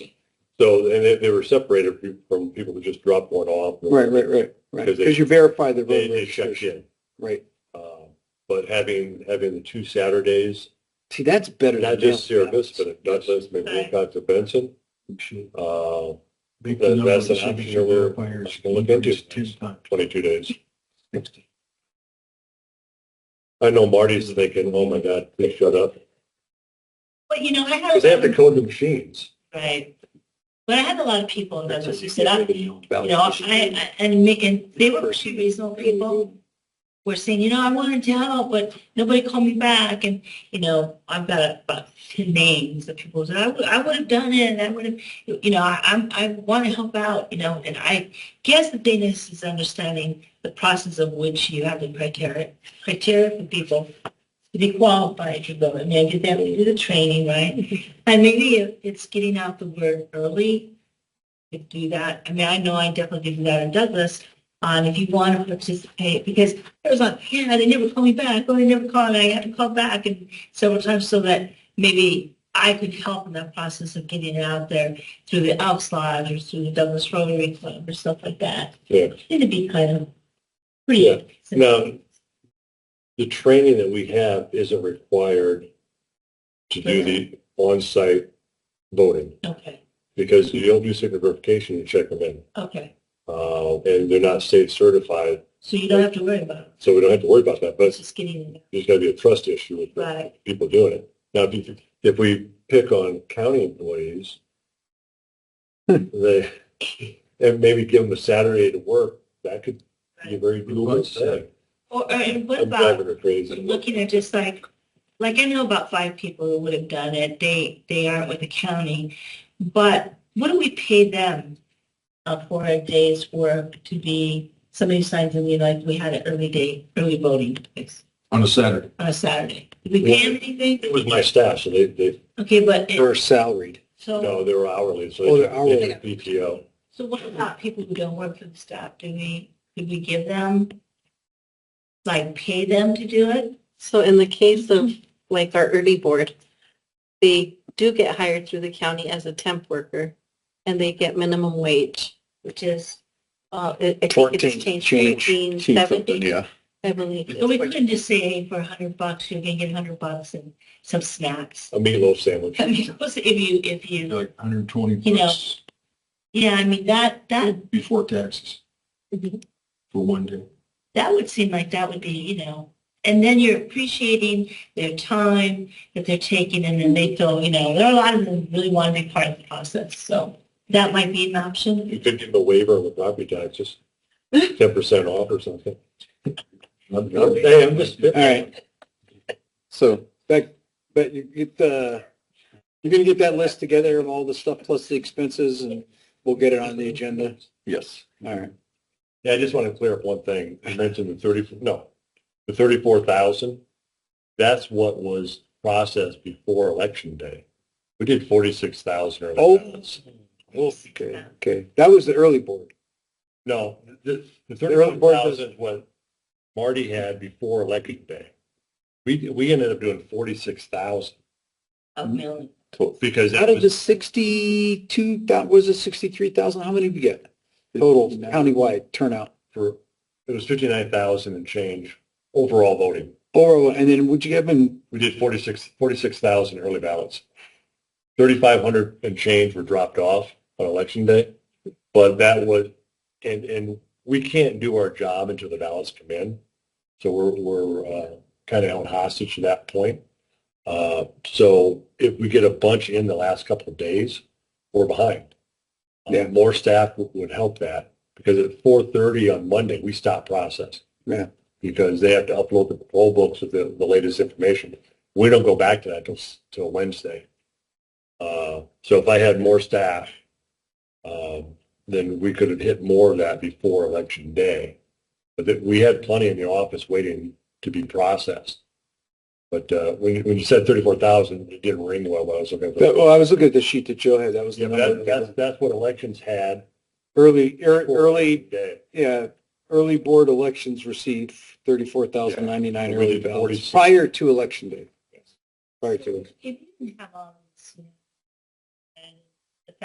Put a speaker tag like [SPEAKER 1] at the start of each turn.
[SPEAKER 1] So, and they, they were separated from- from people who just dropped one off.
[SPEAKER 2] Right, right, right, right.
[SPEAKER 1] Because they-
[SPEAKER 2] Because you verify the
[SPEAKER 1] They,
[SPEAKER 2] road
[SPEAKER 1] they checked
[SPEAKER 2] registration.
[SPEAKER 1] in.
[SPEAKER 2] Right.
[SPEAKER 1] Uh, But having, having the two Saturdays,
[SPEAKER 2] See, that's better.
[SPEAKER 1] not
[SPEAKER 2] than
[SPEAKER 1] just Sierra
[SPEAKER 2] mailing.
[SPEAKER 1] Vista, but Douglas, maybe Wilcox or Benson, uh,
[SPEAKER 3] Make
[SPEAKER 1] That-
[SPEAKER 3] the number
[SPEAKER 1] that's
[SPEAKER 3] of
[SPEAKER 1] an
[SPEAKER 3] signature
[SPEAKER 1] option we're-
[SPEAKER 3] verifiers
[SPEAKER 1] we'll look into.
[SPEAKER 3] increase ten times.
[SPEAKER 1] twenty-two days. I know Marty's thinking, oh my God, please shut up.
[SPEAKER 4] But you know, I had.
[SPEAKER 1] Because they have to code the machines.
[SPEAKER 4] Right. But I had a lot of people in Douglas who said, I, you know, I,
[SPEAKER 1] Validation.
[SPEAKER 4] I- and me, and they were pretty reasonable people. Were saying, you know, I wanted to help, but nobody called me back and, you know, I've got about ten names of people who said, I would, I would have done it and I would have, you know, I, I'm, I want to help out, you know, and I guess the thing is, is understanding the process of which you have the criteria, criteria for people to be qualified to go. I mean, I did that, we do the training, right? And maybe it- it's getting out the word early to do that. I mean, I know I definitely did that in Douglas. On if you want to participate, because it was like, yeah, they never call me back, or they never call, and I had to call back and several times so that maybe I could help in that process of getting it out there through the Elks Lodge or through the Douglas Rotary Club or stuff like that.
[SPEAKER 1] Yeah.
[SPEAKER 4] It'd be kind of
[SPEAKER 1] Yeah.
[SPEAKER 4] pretty.
[SPEAKER 1] Now, the training that we have isn't required to do the on-site voting
[SPEAKER 4] Okay,
[SPEAKER 1] because you don't do signature verification, you check them in.
[SPEAKER 4] okay.
[SPEAKER 1] Uh, and they're not state certified,
[SPEAKER 4] So you don't have to worry about it.
[SPEAKER 1] so we don't have to worry about that, but
[SPEAKER 4] It's just getting
[SPEAKER 1] there's gotta be a trust issue with the
[SPEAKER 4] right.
[SPEAKER 1] people doing it. Now, if, you- if we pick on county employees,
[SPEAKER 2] Hmm.
[SPEAKER 1] they, and maybe give them a Saturday to work, that could be a very doable thing.
[SPEAKER 4] Or, or- and what
[SPEAKER 1] I'm
[SPEAKER 4] about
[SPEAKER 1] driving her crazy.
[SPEAKER 4] looking at just like, like I know about five people who would have done it. They, they aren't with the county. But what do we pay them uh, for a day's work to be, somebody signs in, we like, we had an early day, early voting place
[SPEAKER 3] On a Saturday.
[SPEAKER 4] on a Saturday. Did we pay them
[SPEAKER 1] It
[SPEAKER 4] anything?
[SPEAKER 1] was my staff, so they, they,
[SPEAKER 4] Okay, but, it-
[SPEAKER 2] Or salaried.
[SPEAKER 1] no,
[SPEAKER 4] so,
[SPEAKER 1] they were hourly, so
[SPEAKER 2] Oh,
[SPEAKER 1] they
[SPEAKER 2] they're
[SPEAKER 1] took they took
[SPEAKER 2] hourly.
[SPEAKER 1] PTO.
[SPEAKER 4] so what about people who don't work for the staff? Do we, do we give them, like, pay them to do it?
[SPEAKER 5] So in the case of like our early board, they do get hired through the county as a temp worker and they get minimum wage,
[SPEAKER 4] Which is
[SPEAKER 5] uh, I I think
[SPEAKER 2] Fourteen,
[SPEAKER 5] it's
[SPEAKER 2] change,
[SPEAKER 5] changed
[SPEAKER 2] change
[SPEAKER 5] fourteen
[SPEAKER 2] something,
[SPEAKER 5] seventy,
[SPEAKER 2] yeah.
[SPEAKER 5] I believe.
[SPEAKER 4] So we couldn't just say for a hundred bucks, you're gonna get a hundred bucks and some snacks.
[SPEAKER 1] A meatloaf sandwich.
[SPEAKER 4] I mean, if you, if you,
[SPEAKER 3] Like hundred and twenty
[SPEAKER 4] You know.
[SPEAKER 3] bucks
[SPEAKER 4] yeah, I mean, that, that,
[SPEAKER 3] before taxes
[SPEAKER 5] Mhm.
[SPEAKER 3] for one day.
[SPEAKER 4] that would seem like that would be, you know, and then you're appreciating their time that they're taking and then they feel, you know, there are a lot of them who really want to be part of the process, so that might be an option.
[SPEAKER 1] You could give them a waiver on the property taxes, ten percent off or something. I'm, I'm, hey, I'm just.
[SPEAKER 2] All right. So, but, but you get the, you're gonna get that list together of all the stuff plus the expenses and we'll get it on the agenda. Yes. All right.
[SPEAKER 1] Yeah, I just want to clear up one thing. You mentioned the thirty, no, the thirty-four thousand. That's what was processed before election day. We did forty-six thousand or.
[SPEAKER 2] Oh.
[SPEAKER 1] less.
[SPEAKER 2] Okay, okay. That was the early board.
[SPEAKER 1] No, the, the
[SPEAKER 2] early
[SPEAKER 1] thirty-one
[SPEAKER 2] board
[SPEAKER 1] thousand is what Marty had before election day. We, we ended up doing forty-six thousand
[SPEAKER 4] A million.
[SPEAKER 1] because that
[SPEAKER 2] Out of
[SPEAKER 1] was,
[SPEAKER 2] the sixty-two, that was it sixty-three thousand? How many did we get? Total countywide turnout.
[SPEAKER 1] for, it was fifty-nine thousand and change overall voting.
[SPEAKER 2] Or, and then would you have been,
[SPEAKER 1] We did forty-six, forty-six thousand early ballots. Thirty-five hundred and change were dropped off on election day. But that was, and, and we can't do our job until the ballots come in. So we're, we're, uh, kind of held hostage to that point. Uh, so if we get a bunch in the last couple of days, we're behind. Uh,
[SPEAKER 2] Yeah.
[SPEAKER 1] More staff would, would help that because at four thirty on Monday, we stop processing.
[SPEAKER 2] Yeah.
[SPEAKER 1] Because they have to upload the poll books with the, the latest information. We don't go back to that till, s- till Wednesday. Uh, so if I had more staff, um, then we could have hit more of that before election day. But that, we had plenty in the office waiting to be processed. But, uh, when, when you said thirty-four thousand, it didn't ring well, but I was looking for.
[SPEAKER 2] that- well, I was looking at the sheet that Joe had. That was the
[SPEAKER 1] Yeah, but
[SPEAKER 2] number.
[SPEAKER 1] that,
[SPEAKER 2] that
[SPEAKER 1] that's,
[SPEAKER 2] was-
[SPEAKER 1] that's what elections had.
[SPEAKER 2] Early, ear-
[SPEAKER 1] before
[SPEAKER 2] early,
[SPEAKER 1] day.
[SPEAKER 2] yeah, early board elections received thirty-four thousand ninety-nine
[SPEAKER 1] Yeah.
[SPEAKER 2] early
[SPEAKER 1] Really,
[SPEAKER 2] ballots
[SPEAKER 1] 46.
[SPEAKER 2] prior to election day. Prior to,
[SPEAKER 4] If you didn't have all